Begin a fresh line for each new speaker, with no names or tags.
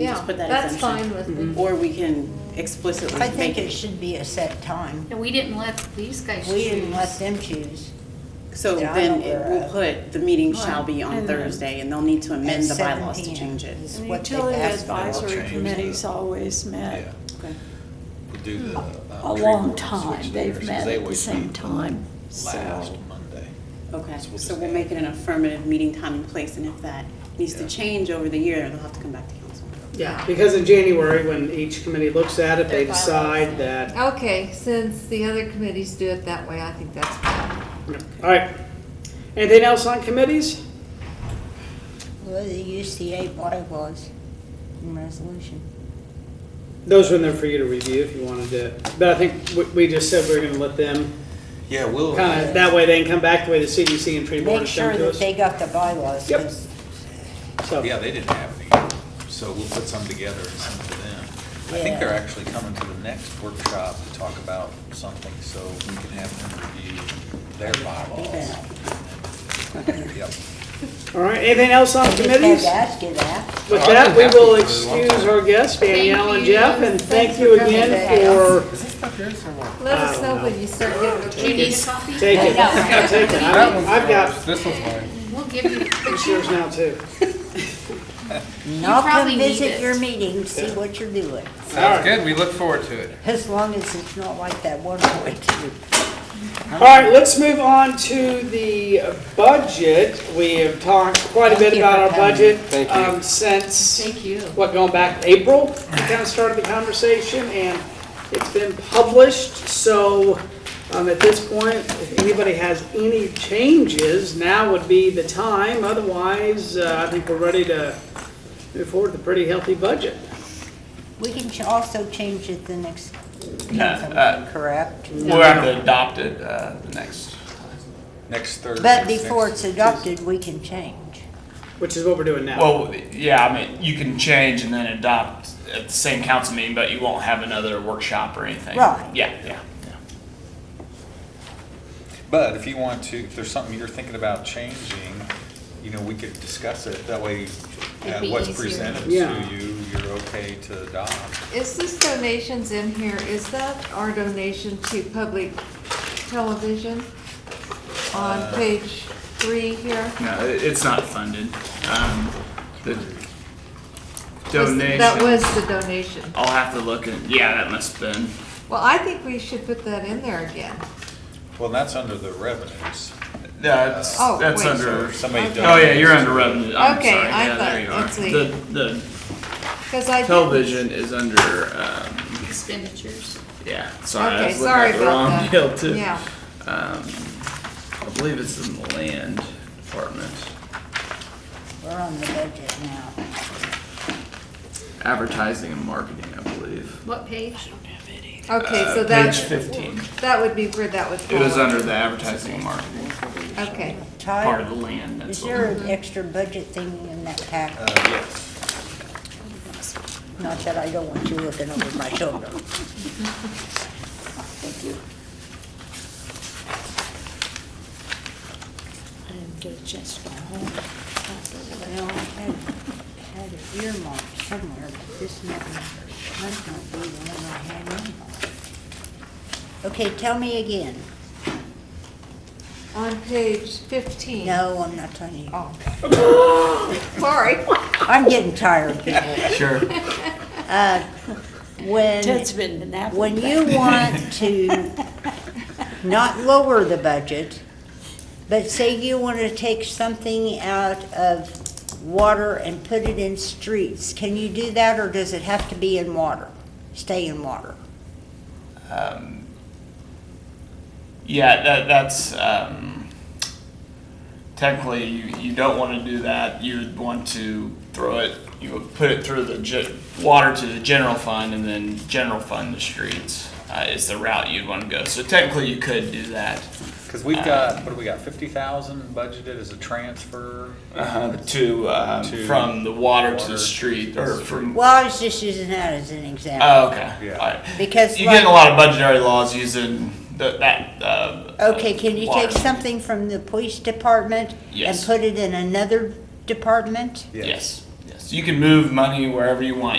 Yeah,
Just put that
that's
exemption. Mm-hmm.
fine with me.
Or we can explicitly
I
make
think it
it,
should be a set time.
And we didn't let these guys choose.
We didn't let them choose.
so
that I'm
then it
aware
will
of.
put, the meeting shall be on
And then-
Thursday, and they'll need to amend
At
the
7
bylaws to
p.m.
change it.
is
The
what they
utility
asked for.
advisory
Change
committee's
the-
always
Yeah,
met
Okay.
we do the. uh,
a
tree
long
board switch
time.
there,
They've
since
met
they
at the
always
same
meet
time,
Last
so.
Monday.
Okay,
So we'll
so
just
we'll
add-
make it an affirmative meeting time and place, and if that needs to
Yeah.
change over the year, they'll have to come back to council.
Yeah, because in January, when each committee looks at it, they
Their bylaws.
decide that,
Okay, since the other committees do it that way, I think that's fine.
all right. Anything else on committees?
Well, the UCA bylaws and resolution.
Those are in there for you to review if you wanted to, but I think we, we just said we are gonna let them,
Yeah, we'll.
kinda, that way they can come back the way the CDC and tree board
Make
has
sure
done to
that
us.
they got the bylaws.
Yep.
'cause
So,
Yeah, they didn't have any, so we'll put some together and send to them. I think
Yeah.
they're actually coming to the next workshop to talk about something, so we can have them review their bylaws. Yep.
all right, anything else on
I just had
Oh, committees?
to ask you that.
With that, we will excuse our guests, Danielle and
Thank you.
Jeff, and thank
Thanks
you
for coming,
again
Danielle.
for
Let
I
us
don't
know
know.
when you start
Do you
getting.
need a copy?
Take it.
No.
Take it.
That one's
I've got
yours. This one's mine.
We'll give you.
it's yours now too.
Now
probably need
come visit
it.
your meeting, see
Yeah.
what you're doing.
Alright.
Sounds good. We look forward to it.
As long as it's not like that one point two.
All right, let's move on to the budget. We have talked quite a bit
Thank you
about
for
our
coming.
budget.
Thank you.
um, Since,
Thank you.
what, going back April, we kind of started the conversation and it's been published. So um, at this point, if anybody has any changes, now would be the time. Otherwise, uh, I think we're ready to move forward with a pretty healthy budget.
We can ch- also change it the next,
No, uh,
correct?
We'll have to adopt it uh, the next.
Next Thursday.
But before it's
next-
adopted, we can change.
Which is what we're doing now.
Well, yeah, I mean, you can change and then adopt at the same council meeting, but you won't have another workshop or anything.
Right.
Yeah, yeah, yeah.
But if you want to, if there's something you're thinking about changing, you know, we could discuss it. That way,
It'd
uh,
be
what's
easier.
presented
Yeah.
to you, you're okay to adopt.
Is this donations in here, is that our donation to public television on page three here?
No, it- it's not funded. Um, the
Was-
donation.
That was the donation.
I'll have to look at, yeah, that must have been,
Well, I think we should put that in there again.
Well, that's under the revenues.
that's,
Oh,
that's
wait.
under.
If Somebody donates.
Oh, yeah, you're under revenue. I'm
Okay,
sorry.
I
Yeah,
thought
there you are.
it's the-
The, the
Because I. didn't-
television is under, um,
Expenditures.
yeah, sorry. I
Okay,
was looking at
sorry
the wrong
about
deal,
that.
too.
Yeah,
Um, I believe it's in the land department.
We're on the budget now.
Advertising and marketing, I believe.
What page?
okay, so
Uh,
that,
Page fifteen.
that would be where that would
It
fall.
was under the advertising and marketing
Okay,
part
Tyler,
of the land.
is
That's
there
what.
an extra budget thing in that pack?
Uh, yes.
Not that I don't want you looking over my shoulder.
I didn't get a chance to go home.
Well, I had, had it earmarked somewhere, but this might, might not be the one I had earmarked. Okay, tell me again.
on page fifteen.
No, I'm not telling you.
Oh.
Oh.
Sorry.
I'm getting tired, people.
Sure.
Uh, When,
Ted's been napping.
when you want to not lower the budget, but say you want to take something out of water and put it in streets, can you do that, or does it have to be in water? Stay in water?
Um, yeah, that, that's um, technically you, you don't want to do that. You would want to throw it. You would put it through the ge- water to the general fund, and then general fund the streets uh, is the route you'd want to go. So technically, you could do that
Because
Uh,
we've got, what do we got, fifty thousand budgeted as a transfer?
uh, to, um,
Uh-huh. To
from the water, to
water
the street
to
or
the
from.
Well, I was just using that as an example.
Oh, okay.
Yeah.
All right.
Because
you get in a
like-
lot of budgetary laws using the, that. Uh,
Okay,
uh,
can you
water.
take something from the police department and
Yes.
put it in another department?
Yes. Yes. So you can move money wherever you want.